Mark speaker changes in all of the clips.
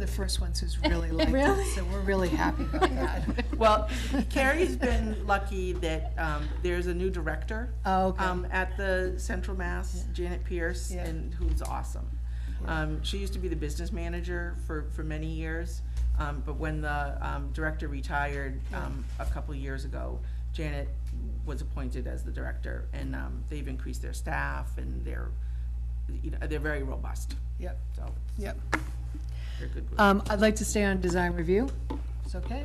Speaker 1: the first ones who's really liked
Speaker 2: Really?
Speaker 1: it, so we're really happy about that.
Speaker 3: Well, Carrie's been lucky that um, there's a new director
Speaker 1: Oh, okay.
Speaker 3: um, at the Central Mass, Janet Pierce,
Speaker 1: Yeah.
Speaker 3: and who's awesome. Um, She used to be the business manager for, for many years, um, but when the um, director retired um, a couple years ago, Janet was appointed as the director, and um, they've increased their staff, and they're, you know, they're very robust,
Speaker 1: Yep,
Speaker 3: so
Speaker 1: yep.
Speaker 3: they're a good group.
Speaker 1: Um, I'd like to stay on design review. It's okay.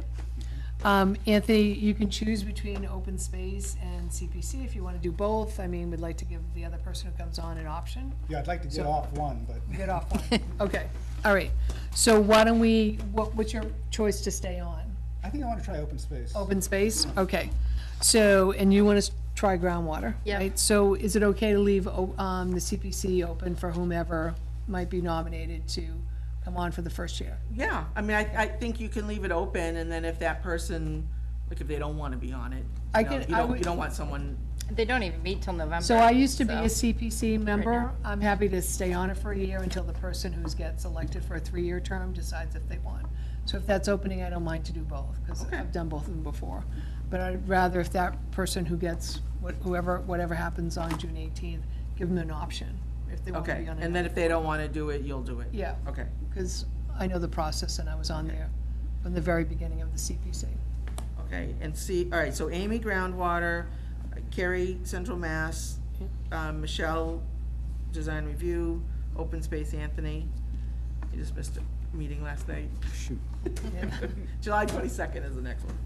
Speaker 1: Um, Anthony, you can choose between open space and CPC if you want to do both. I mean, we'd like to give the other person who comes on an option.
Speaker 4: Yeah, I'd like to get
Speaker 1: So-
Speaker 4: off one, but
Speaker 1: Get off one. Okay, all right. So why don't we, what, what's your choice to stay on?
Speaker 4: I think I want to try open space.
Speaker 1: Open space? Okay. So, and you want to try groundwater,
Speaker 2: Yeah.
Speaker 1: right? So is it okay to leave, o- um, the CPC open for whomever might be nominated to come on for the first year?
Speaker 3: Yeah, I mean, I, I think you can leave it open, and then if that person, like, if they don't wanna be on it,
Speaker 1: I
Speaker 3: you know,
Speaker 1: can-
Speaker 3: you
Speaker 1: I
Speaker 3: don't,
Speaker 1: would-
Speaker 3: you don't want someone,
Speaker 2: They don't even meet till November.
Speaker 1: So I used to be a
Speaker 2: so-
Speaker 1: CPC member.
Speaker 2: now.
Speaker 1: I'm happy to stay on it for a year until the person who gets elected for a three-year term decides if they want. So if that's opening, I don't mind to do both, because
Speaker 3: Okay.
Speaker 1: I've done both of them before. But I'd rather if that person who gets, what- whoever, whatever happens on June eighteenth, give them an option if they want to
Speaker 3: okay,
Speaker 1: be on it.
Speaker 3: and then if they don't wanna do it, you'll do it?
Speaker 1: Yeah.
Speaker 3: Okay,
Speaker 1: Because I know the process and I was on there from the very beginning of the CPC.
Speaker 3: okay, and see, all right, so Amy Groundwater, uh, Carrie Central Mass, um, Michelle Design Review, Open Space Anthony, you just missed a meeting last night.
Speaker 4: Shoot.
Speaker 3: July twenty-second is the next one.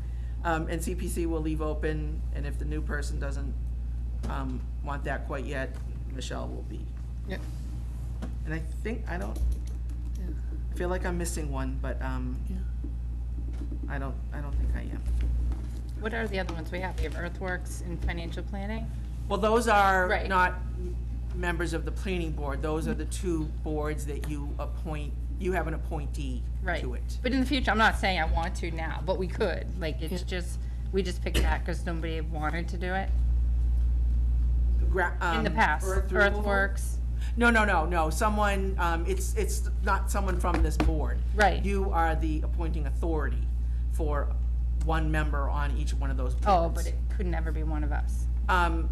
Speaker 3: Um, and CPC will leave open, and if the new person doesn't, um, want that quite yet, Michelle will be.
Speaker 1: Yep.
Speaker 3: And I think, I don't,
Speaker 1: Yeah.
Speaker 3: I feel like I'm missing one, but, um,
Speaker 1: Yeah.
Speaker 3: I don't, I don't think I am.
Speaker 2: What are the other ones we have? We have earthworks and financial planning.
Speaker 3: Well, those are
Speaker 2: Right.
Speaker 3: not members of the planning board, those are the two boards that you appoint, you have an appointee
Speaker 2: Right.
Speaker 3: to it.
Speaker 2: But in the future, I'm not saying I want to now, but we could. Like, it's just, we just picked that because nobody wanted to do it
Speaker 3: Gra-
Speaker 2: in the
Speaker 3: um,
Speaker 2: past.
Speaker 3: earth removal?
Speaker 2: Earthworks.
Speaker 3: No, no, no, no, someone, um, it's, it's not someone from this board.
Speaker 2: Right.
Speaker 3: You are the appointing authority for one member on each one of those boards.
Speaker 2: Oh, but it could never be one of us.
Speaker 3: Um,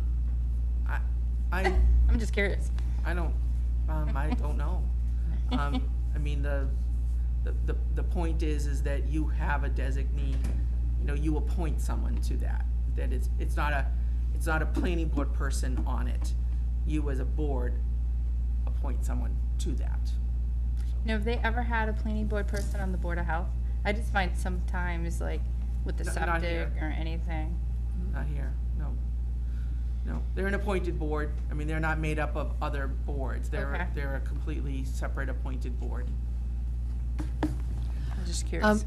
Speaker 3: I, I,
Speaker 2: I'm just curious.
Speaker 3: I don't, um, I don't know. Um, I mean, the, the, the, the point is, is that you have a designee, you know, you appoint someone to that. That it's, it's not a, it's not a planning board person on it. You as a board appoint someone to that.
Speaker 2: Now, have they ever had a planning board person on the Board of Health? I just find sometimes, like, with the
Speaker 3: No, not
Speaker 2: septic
Speaker 3: here.
Speaker 2: or anything.
Speaker 3: Not here, no. No, they're an appointed board. I mean, they're not made up of other boards. They're,
Speaker 2: Okay.
Speaker 3: they're a completely separate appointed board.
Speaker 2: I'm just
Speaker 1: Um,
Speaker 2: curious.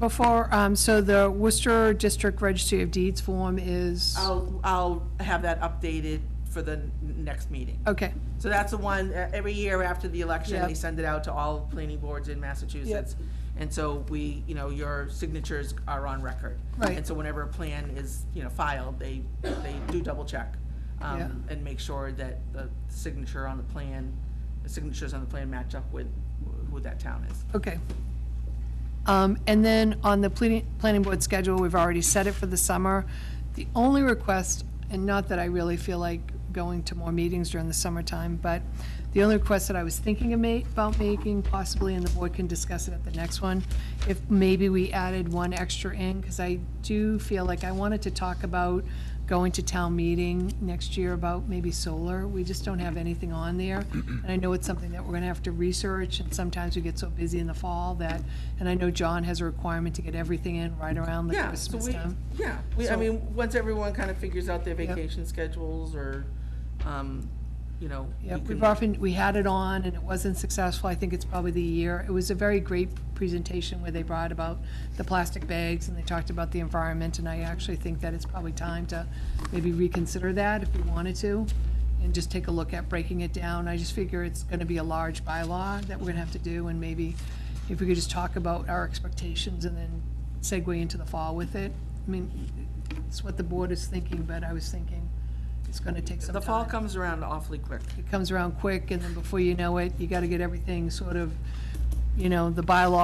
Speaker 1: Before, um, so the Worcester District Registry of Deeds form is,
Speaker 3: I'll, I'll have that updated for the n- next meeting.
Speaker 1: okay.
Speaker 3: So that's the one, uh, every year after the election, they
Speaker 1: Yep.
Speaker 3: send it out to all planning boards in Massachusetts. And so we, you know, your signatures are on record.
Speaker 1: Right.
Speaker 3: And so whenever a plan is, you know, filed, they, they do double check.
Speaker 1: Yeah.
Speaker 3: Um, and make sure that the signature on the plan, the signatures on the plan match up with who that town is.
Speaker 1: Okay. Um, And then on the planning, planning board schedule, we've already set it for the summer. The only request, and not that I really feel like going to more meetings during the summertime, but the only request that I was thinking of ma- about making possibly, and the board can discuss it at the next one, if maybe we added one extra in, because I do feel like I wanted to talk about going to town meeting next year about maybe solar. We just don't have anything on there. And I know it's something that we're gonna have to research, and sometimes we get so busy in the fall that, and I know John has a requirement to get everything in right around the
Speaker 3: Yeah, so
Speaker 1: Christmas
Speaker 3: we,
Speaker 1: time.
Speaker 3: yeah, we, I
Speaker 1: So-
Speaker 3: mean, once everyone kind of figures out their
Speaker 1: Yep.
Speaker 3: vacation schedules or, um, you know. we
Speaker 1: Yep, we've
Speaker 3: can-
Speaker 1: often, we had it on and it wasn't successful. I think it's probably the year. It was a very great presentation where they brought about the plastic bags and they talked about the environment. And I actually think that it's probably time to maybe reconsider that if we wanted to and just take a look at breaking it down. I just figure it's going to be a large bylaw that we're going to have to do. And maybe if we could just talk about our expectations and then segue into the fall with it. I mean, it's what the board is thinking, but I was thinking it's going to take some
Speaker 3: The
Speaker 1: time
Speaker 3: fall comes around awfully quick.
Speaker 1: it comes around quick, and then before you know it, you gotta get everything sort of, you know, the bylaw